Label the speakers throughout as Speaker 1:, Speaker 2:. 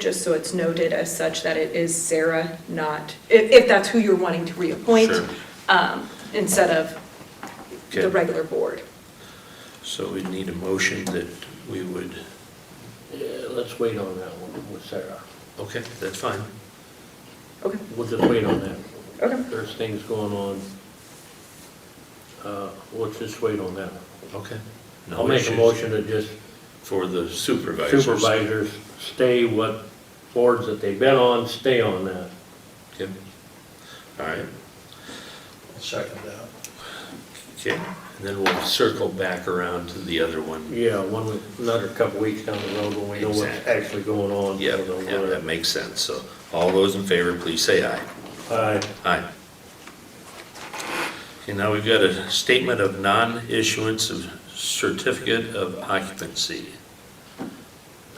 Speaker 1: Just so it's noted as such that it is Sarah, not, if, if that's who you're wanting to reappoint,
Speaker 2: Sure.
Speaker 1: um, instead of the
Speaker 2: Okay.
Speaker 1: regular board.
Speaker 2: So we need a motion that we would,
Speaker 3: Yeah, let's wait on that one with Sarah.
Speaker 2: okay, that's fine.
Speaker 1: Okay,
Speaker 3: We'll just wait on that.
Speaker 1: okay,
Speaker 3: There's things going on. Uh, Let's just wait on that.
Speaker 2: Okay. No
Speaker 3: I'll make a
Speaker 2: issues.
Speaker 3: motion to just
Speaker 2: For the supervisors.
Speaker 3: supervisors stay what boards that they've been on, stay on that.
Speaker 2: Okay. All right,
Speaker 4: Second that.
Speaker 2: okay. And then we'll circle back around to the other one.
Speaker 3: Yeah, one, week- another couple weeks down the road when we know what's
Speaker 2: Exactly.
Speaker 3: actually going on.
Speaker 2: Yeah, yeah, that makes sense. So all those in favor, please say aye.
Speaker 3: Aye.
Speaker 2: Aye. Okay, now we've got a statement of non-issuance of certificate of occupancy.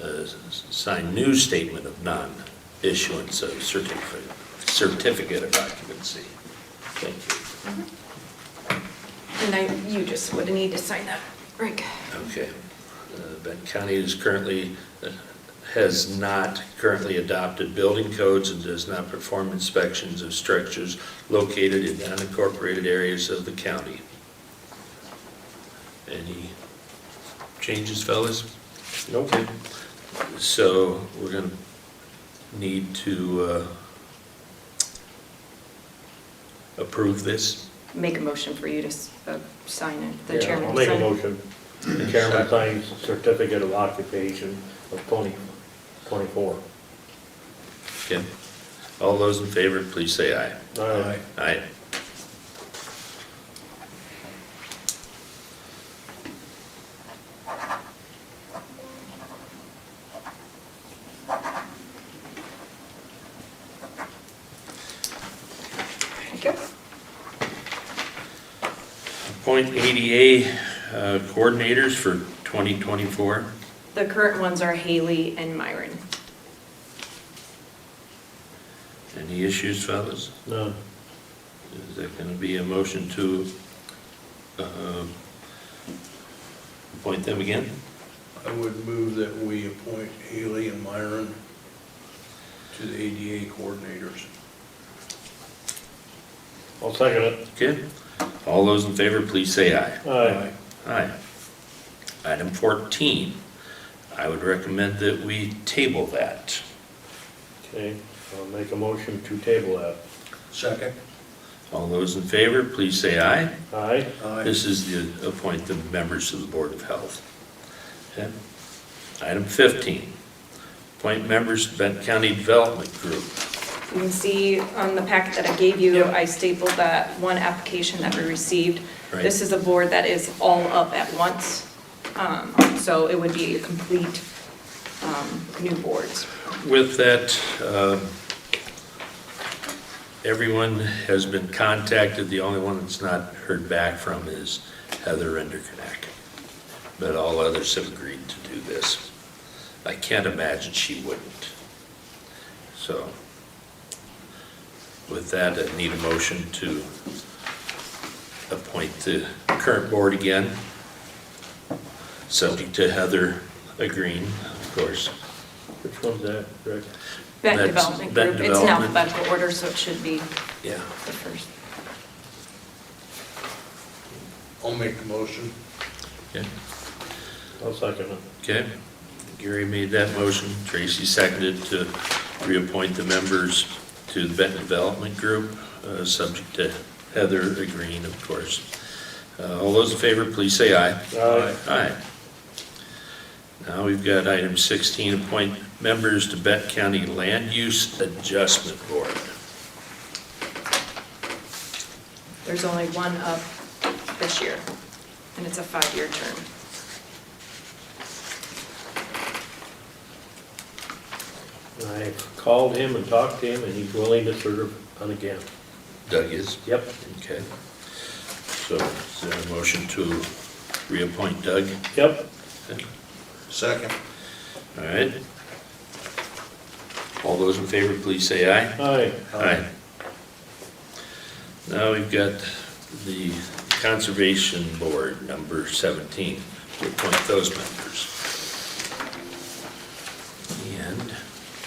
Speaker 2: Uh, s- Sign new statement of non-issuance of certificate, certificate of occupancy. Thank you.
Speaker 1: and I, you just would need to sign that, Rick.
Speaker 2: Okay. Uh, Benton County is currently, uh, has not currently adopted building codes and does not perform inspections of structures located in unincorporated areas of the county. Any changes, fellas?
Speaker 3: Nope.
Speaker 2: So we're going to need to uh, approve this?
Speaker 1: Make a motion for you to, s- uh, sign it, the
Speaker 3: Yeah,
Speaker 1: chairman.
Speaker 3: I'll
Speaker 1: to
Speaker 3: make a
Speaker 1: sign it.
Speaker 3: motion. The chairman signs certificate of occupation of 20, 24.
Speaker 2: Okay. All those in favor, please say aye.
Speaker 3: Aye.
Speaker 2: Aye.
Speaker 1: Thank you.
Speaker 2: Appoint ADA uh, coordinators for 2024.
Speaker 1: The current ones are Haley and Myron.
Speaker 2: Any issues, fellas?
Speaker 3: None.
Speaker 2: Is there going to be a motion to uh, appoint them again?
Speaker 4: I would move that we appoint Haley and Myron to the ADA coordinators.
Speaker 3: I'll second it.
Speaker 2: Okay. All those in favor, please say aye.
Speaker 3: Aye.
Speaker 2: Aye. Item 14, I would recommend that we table that.
Speaker 3: Okay, I'll make a motion to table that.
Speaker 4: Second?
Speaker 2: All those in favor, please say aye.
Speaker 3: Aye?
Speaker 4: Aye.
Speaker 2: This is to appoint the members of the Board of Health. Okay. Item 15, appoint members to Benton County Development Group.
Speaker 1: You can see on the packet that I gave you, I stapled that one application that we received.
Speaker 2: Right.
Speaker 1: This is a board that is all up at once, um, so it would be a complete um, new boards.
Speaker 2: With that, um, everyone has been contacted. The only one that's not heard back from is Heather Enderknack. But all others have agreed to do this. I can't imagine she wouldn't. So with that, I need a motion to appoint the current board again, subject to Heather agreeing, of course.
Speaker 3: Which one's that, Rick?
Speaker 1: Vet
Speaker 2: That's-
Speaker 1: Development
Speaker 2: vet
Speaker 1: Group, it's in
Speaker 2: development.
Speaker 1: alphabetical order, so it should be
Speaker 2: Yeah.
Speaker 1: the first.
Speaker 4: I'll make the motion.
Speaker 2: Okay.
Speaker 3: I'll second it.
Speaker 2: Okay, Gary made that motion, Tracy seconded to reappoint the members to the Benton Development Group, uh, subject to Heather agreeing, of course. Uh, All those in favor, please say aye.
Speaker 3: Aye.
Speaker 2: Aye. Now we've got item 16, appoint members to Benton County Land Use Adjustment Board.
Speaker 1: There's only one up this year, and it's a five-year term.
Speaker 3: I called him and talked to him, and he's willing to serve on again.
Speaker 2: Doug is?
Speaker 3: Yep.
Speaker 2: Okay. So is there a motion to reappoint Doug?
Speaker 3: Yep.
Speaker 4: Second?
Speaker 2: All right. All those in favor, please say aye.
Speaker 3: Aye.
Speaker 2: Now we've got the Conservation Board, number 17, to appoint those members.